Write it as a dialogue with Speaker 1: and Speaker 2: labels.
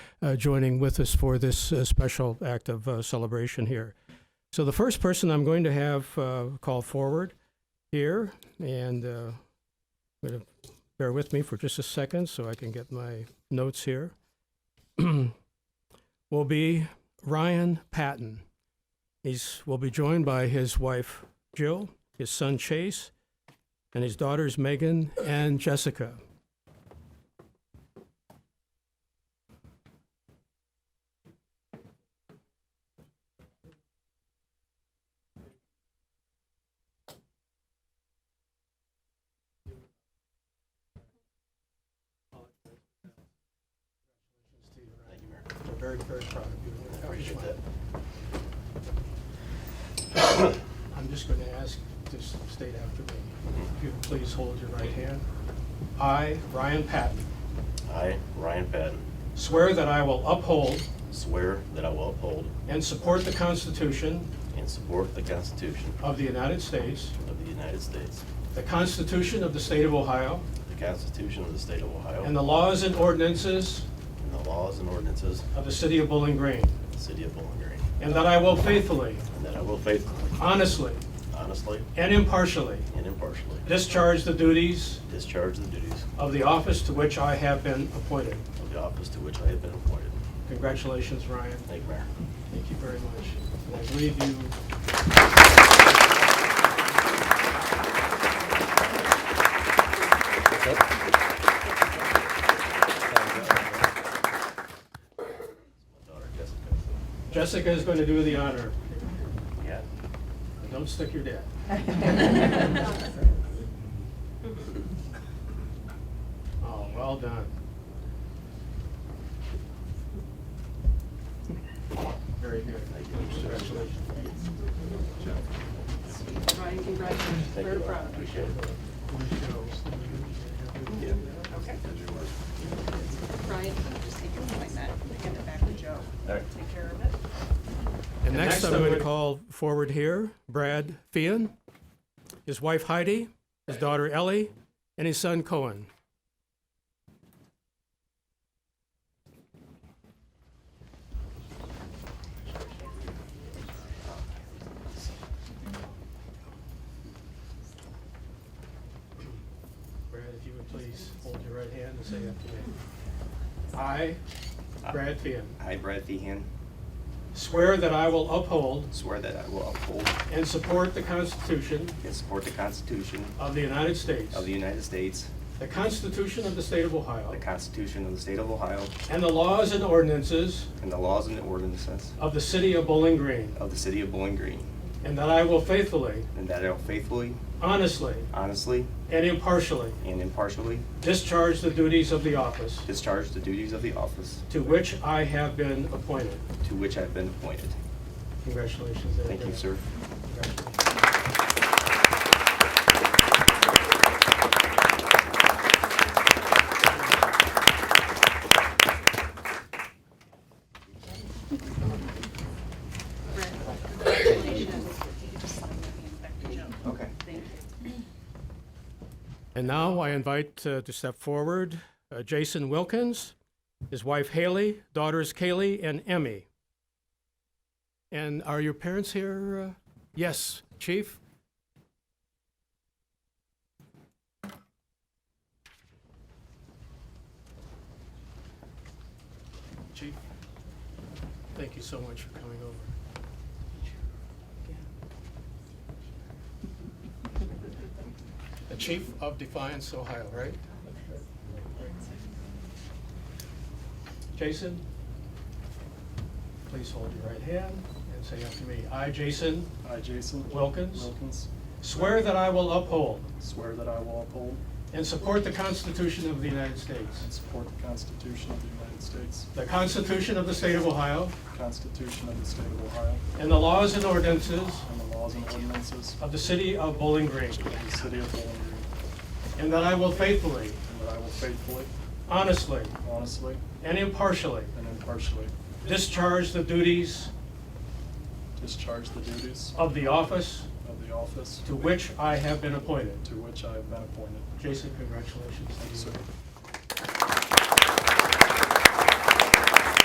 Speaker 1: uh, joining with us for this uh, special act of uh, celebration here. So the first person I'm going to have uh, call forward here, and uh, I'm gonna bear with me for just a second so I can get my notes here, will be Ryan Patton. He's will be joined by his wife Jill, his son Chase, and his daughters Megan and Jessica. We're very, very proud of you. Appreciate that. I'm just going to ask to s- state after me. If you please hold your right hand. I, Ryan Patton,
Speaker 2: I, Ryan Patton,
Speaker 1: swear that I will uphold
Speaker 2: swear that I will uphold
Speaker 1: and support the Constitution
Speaker 2: and support the Constitution
Speaker 1: of the United States,
Speaker 2: of the United States,
Speaker 1: the Constitution of the State of Ohio,
Speaker 2: the Constitution of the State of Ohio,
Speaker 1: and
Speaker 2: and
Speaker 1: the laws and ordinances
Speaker 2: the laws and ordinances
Speaker 1: of the City of Bowling Green,
Speaker 2: of the City of Bowling Green,
Speaker 1: and that I will faithfully,
Speaker 2: and that I will faithfully,
Speaker 1: honestly,
Speaker 2: honestly,
Speaker 1: and impartially
Speaker 2: and impartially
Speaker 1: discharge the duties
Speaker 2: discharge the duties
Speaker 1: of the office to which I have been appointed.
Speaker 2: of the office to which I have been appointed.
Speaker 1: Congratulations, Ryan.
Speaker 2: Thank you, Mayor.
Speaker 1: Thank you very much. And I believe you.
Speaker 2: My daughter Jessica.
Speaker 1: Jessica is going to do the honor.
Speaker 2: Yeah.
Speaker 1: Don't stick your dad. Oh, well done. Very good. Congratulations.
Speaker 3: Ryan, congratulations.
Speaker 2: Thank you,
Speaker 3: Very
Speaker 2: Laura.
Speaker 3: proud of
Speaker 2: Appreciate
Speaker 3: you.
Speaker 2: it. Yeah.
Speaker 3: Ryan, can you just take your point back, hand it back to Joe.
Speaker 2: All right.
Speaker 3: Take care of it.
Speaker 1: And next, I'm going to call forward here Brad Fian, his wife Heidi, his daughter Ellie, and his son Cohen. Brad, if you would please hold your right hand and say after me. I, Brad Fian,
Speaker 4: I, Brad Feehan,
Speaker 1: swear that I will uphold
Speaker 4: swear that I will uphold
Speaker 1: And support the Constitution
Speaker 4: and support the Constitution
Speaker 1: of the United States,
Speaker 4: of the United States,
Speaker 1: the Constitution of the State of Ohio,
Speaker 4: the Constitution of the State of Ohio,
Speaker 1: and the laws and ordinances
Speaker 4: and the laws and ordinances
Speaker 1: of the City of Bowling Green,
Speaker 4: of the City of Bowling Green,
Speaker 1: and that I will faithfully,
Speaker 4: and that I will faithfully,
Speaker 1: honestly,
Speaker 4: honestly,
Speaker 1: and impartially
Speaker 4: and impartially
Speaker 1: discharge the duties of the office
Speaker 4: discharge the duties of the office
Speaker 1: to which I have been appointed.
Speaker 4: to which I have been appointed.
Speaker 1: Congratulations. there,
Speaker 4: Thank you,
Speaker 1: Brad.
Speaker 4: sir.
Speaker 1: Congratulations.
Speaker 3: Brad, congratulations. You just sign that hand back to Joe.
Speaker 4: Okay.
Speaker 3: Thank you.
Speaker 1: And now I invite uh, to step forward uh, Jason Wilkins, his wife Haley, daughters Kaylee and Emmy. And are your parents here? Uh, yes, Chief. Chief, thank you so much for coming over. The Chief of Defiance, Ohio, right? Jason, please hold your right hand and say after me. I, Jason,
Speaker 5: I, Jason
Speaker 1: Wilkins.
Speaker 5: Wilkins,
Speaker 1: swear that I will uphold
Speaker 5: swear that I will uphold
Speaker 1: and support the Constitution of the United States,
Speaker 5: and support the Constitution of the United States,
Speaker 1: the Constitution of the State of Ohio,
Speaker 5: the Constitution of the State of Ohio,
Speaker 1: and the laws and ordinances
Speaker 5: and the laws and ordinances
Speaker 1: of the City of Bowling Green,
Speaker 5: of the City of Bowling Green,
Speaker 1: and that I will faithfully,
Speaker 5: and that I will faithfully,
Speaker 1: honestly,
Speaker 5: honestly,
Speaker 1: and impartially
Speaker 5: and impartially
Speaker 1: discharge the duties
Speaker 5: discharge the duties
Speaker 1: of the office
Speaker 5: of the office
Speaker 1: to which I have been appointed.
Speaker 5: to which I have been appointed.
Speaker 1: Jason, congratulations.
Speaker 5: Thank you, sir.